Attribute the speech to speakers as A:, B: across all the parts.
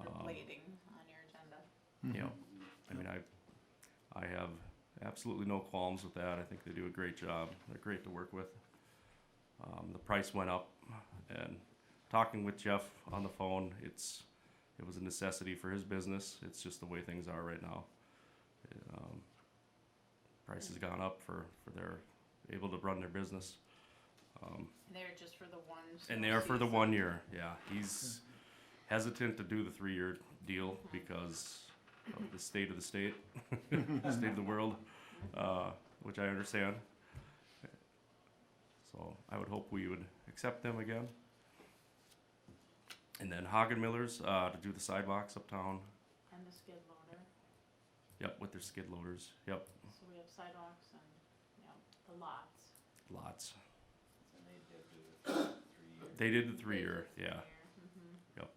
A: Um,
B: Mm-hmm.
A: you know, I mean, I, I have absolutely no qualms with that. I think they do a great job. They're great to work with. Um, the price went up, and talking with Jeff on the phone, it's, it was a necessity for his business. It's just the way things are right now. Um, price has gone up for for their able to run their business. Um,
C: They're just for the ones.
A: and they are for the one year. Yeah, he's hesitant to do the three year deal because of the state of the state, state of the world, uh, which I understand. So I would hope we would accept them again. And then Hagen Millers uh, to do the sidewalks uptown.
C: And the skid loader,
A: Yep, with their skid loaders. Yep,
C: so we have sidewalks and, you know, the lots.
A: lots.
D: And they did do it three years.
A: They did the three year. Yeah.
C: Mhm.
A: Yep.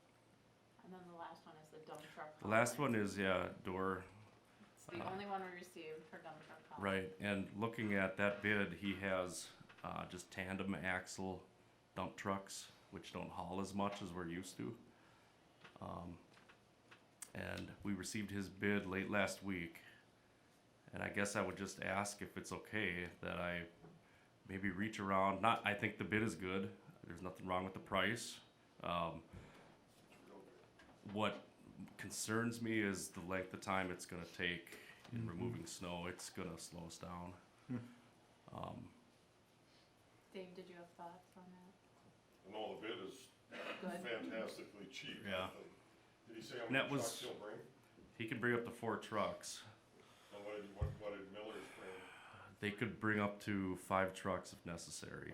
C: And then the last one is the dump truck.
A: The last one
C: hauling.
A: is yeah door
C: It's the
A: uh,
C: only one we received for dump truck. hauling.
A: Right, and looking at that bid, he has uh, just tandem axle dump trucks, which don't haul as much as we're used to. Um, and we received his bid late last week, and I guess I would just ask if it's okay that I maybe reach around. Not, I think the bid is good. There's nothing wrong with the price. Um, what concerns me is the length of time it's gonna take in removing snow. It's gonna slow us down. Um,
C: Dave, did you have thoughts on that?
E: And all the bid is
C: Good.
E: fantastically cheap. I
A: Yeah.
E: think. Did he say how
A: And that
E: many
A: was-
E: trucks he'll bring?
A: he could bring up to four trucks.
E: And what did, what, what did Miller's bring?
A: They could bring up to five trucks if necessary.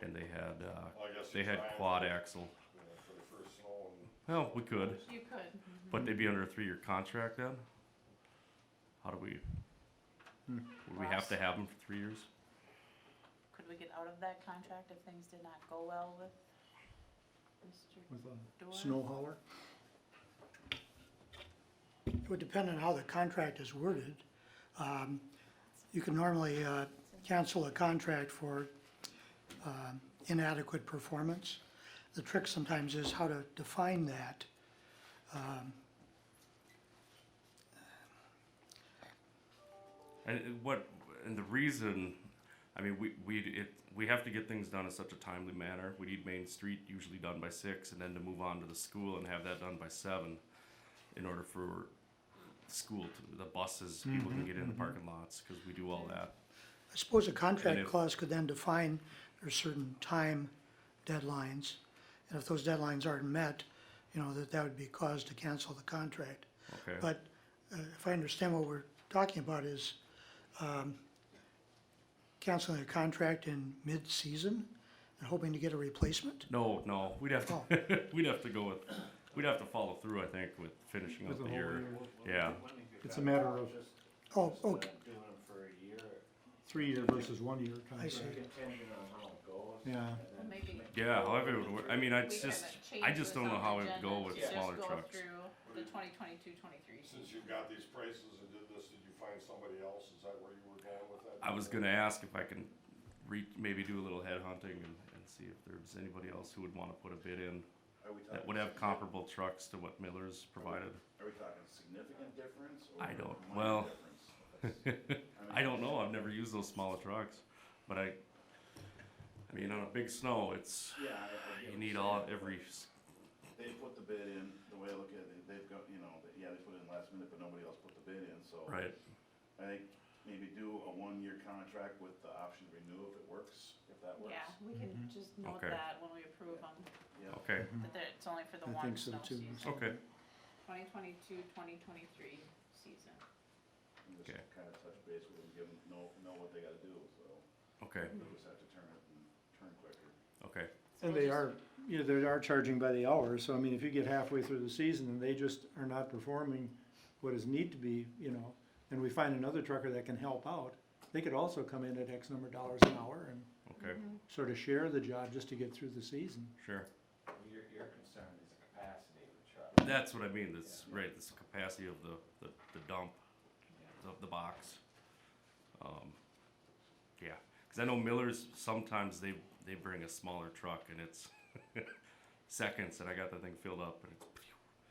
A: And they had, uh,
E: Well, I guess
A: they
E: he's
A: had
E: trying
A: quad
E: for-
A: axle.
E: you know, For the first snow and.
A: Well, we could,
C: You could.
B: Mm-hmm.
A: but they'd be under a three-year contract then. How do we? Would we have to have them for three years?
C: Could we get out of that contract if things did not go well with Mr.
B: With
C: Door?
B: a snow hauler?
F: It would depend on how the contract is worded. Um, You can normally uh, cancel a contract for um, inadequate performance. The trick sometimes is how to define that.
A: And it- what, and the reason, I mean, we, we, it, we have to get things done in such a timely manner. We need Main Street usually done by six and then to move on to the school and have that done by seven in order for school, to, the buses, people can get in the parking lots, cause we do all that.
F: I suppose a
A: And
F: contract
A: if-
F: clause could then define there's certain time deadlines. And if those deadlines aren't met, you know, that that would be cause to cancel the contract.
A: Okay,
F: But uh, if I understand what we're talking about is um, canceling a contract in mid-season and hoping to get a replacement?
A: no, no, we'd have
F: Oh.
A: to, we'd have to go with, we'd have to follow through, I think, with finishing
B: With
A: up
B: the
A: the
B: whole
A: year.
B: year.
A: Yeah,
B: It's a matter of-
D: Just-
F: Oh,
D: just, uh,
F: okay,
D: Doing them for a year,
B: Three-year versus one-year
F: I see.
B: contract.
D: contingent on how it goes.
B: Yeah.
D: and then
C: Maybe-
D: make the
A: yeah,
D: goal
A: however, it would work. I mean, I
C: We
A: just,
C: haven't
A: I
C: changed this
A: just don't know
C: on
A: how
C: the
A: it would go
C: agenda
A: with
C: to just
A: smaller
C: go
A: trucks.
C: through The twenty twenty-two, twenty-three.
E: Since you got these prices and did this, did you find somebody else? Is that where you were going with that?
A: I was gonna ask if I can re- maybe do a little headhunting and, and see if there's anybody else who would wanna put a bid in
D: Are we
A: that
D: talking
A: would have
D: significant-
A: comparable trucks to what Miller's provided.
D: Are we talking significant difference?
A: I
D: or
A: don't-
D: minor
A: well,
D: difference?
A: I don't know, I've never used those smaller trucks, but I, I mean, on a big snow, it's,
D: Yeah, I, I get what
A: you
D: you're
A: need all,
D: saying,
A: every,
D: but
A: s-
D: They put the bid in, the way I look at it, they've got, you know, they- yeah, they put it in last minute, but nobody else put the bid in, so.
A: right,
D: I think maybe do a one-year contract with the option to renew if it works, if that works.
C: Yeah, we
B: Mm-hmm.
C: can just note
A: Okay.
C: that when we approve them,
D: Yeah.
A: okay,
C: that there- it's only for the
B: I
C: one
B: think so
C: snow
B: too.
C: season.
A: okay.
C: Twenty twenty-two, twenty twenty-three season.
D: And just
A: Okay.
D: kind of touch base with them, give them, know, know what they gotta do, so.
A: Okay,
D: They just have to turn it and turn quicker.
A: okay,
C: So
B: And
C: we'll
B: they
C: just-
B: are, you know, they are charging by the hour, so I mean, if you get halfway through the season and they just are not performing what is need to be, you know, and we find another trucker that can help out, they could also come in at X number of dollars an hour and
A: okay,
B: sort of share the job just to get through the season.
A: sure.
G: Your, your concern is the capacity of the truck.
A: That's what I mean, that's, right, this capacity of the, the, the dump, of the box. Um, yeah, cause I know Miller's, sometimes they, they bring a smaller truck and it's seconds and I got the thing filled up and it's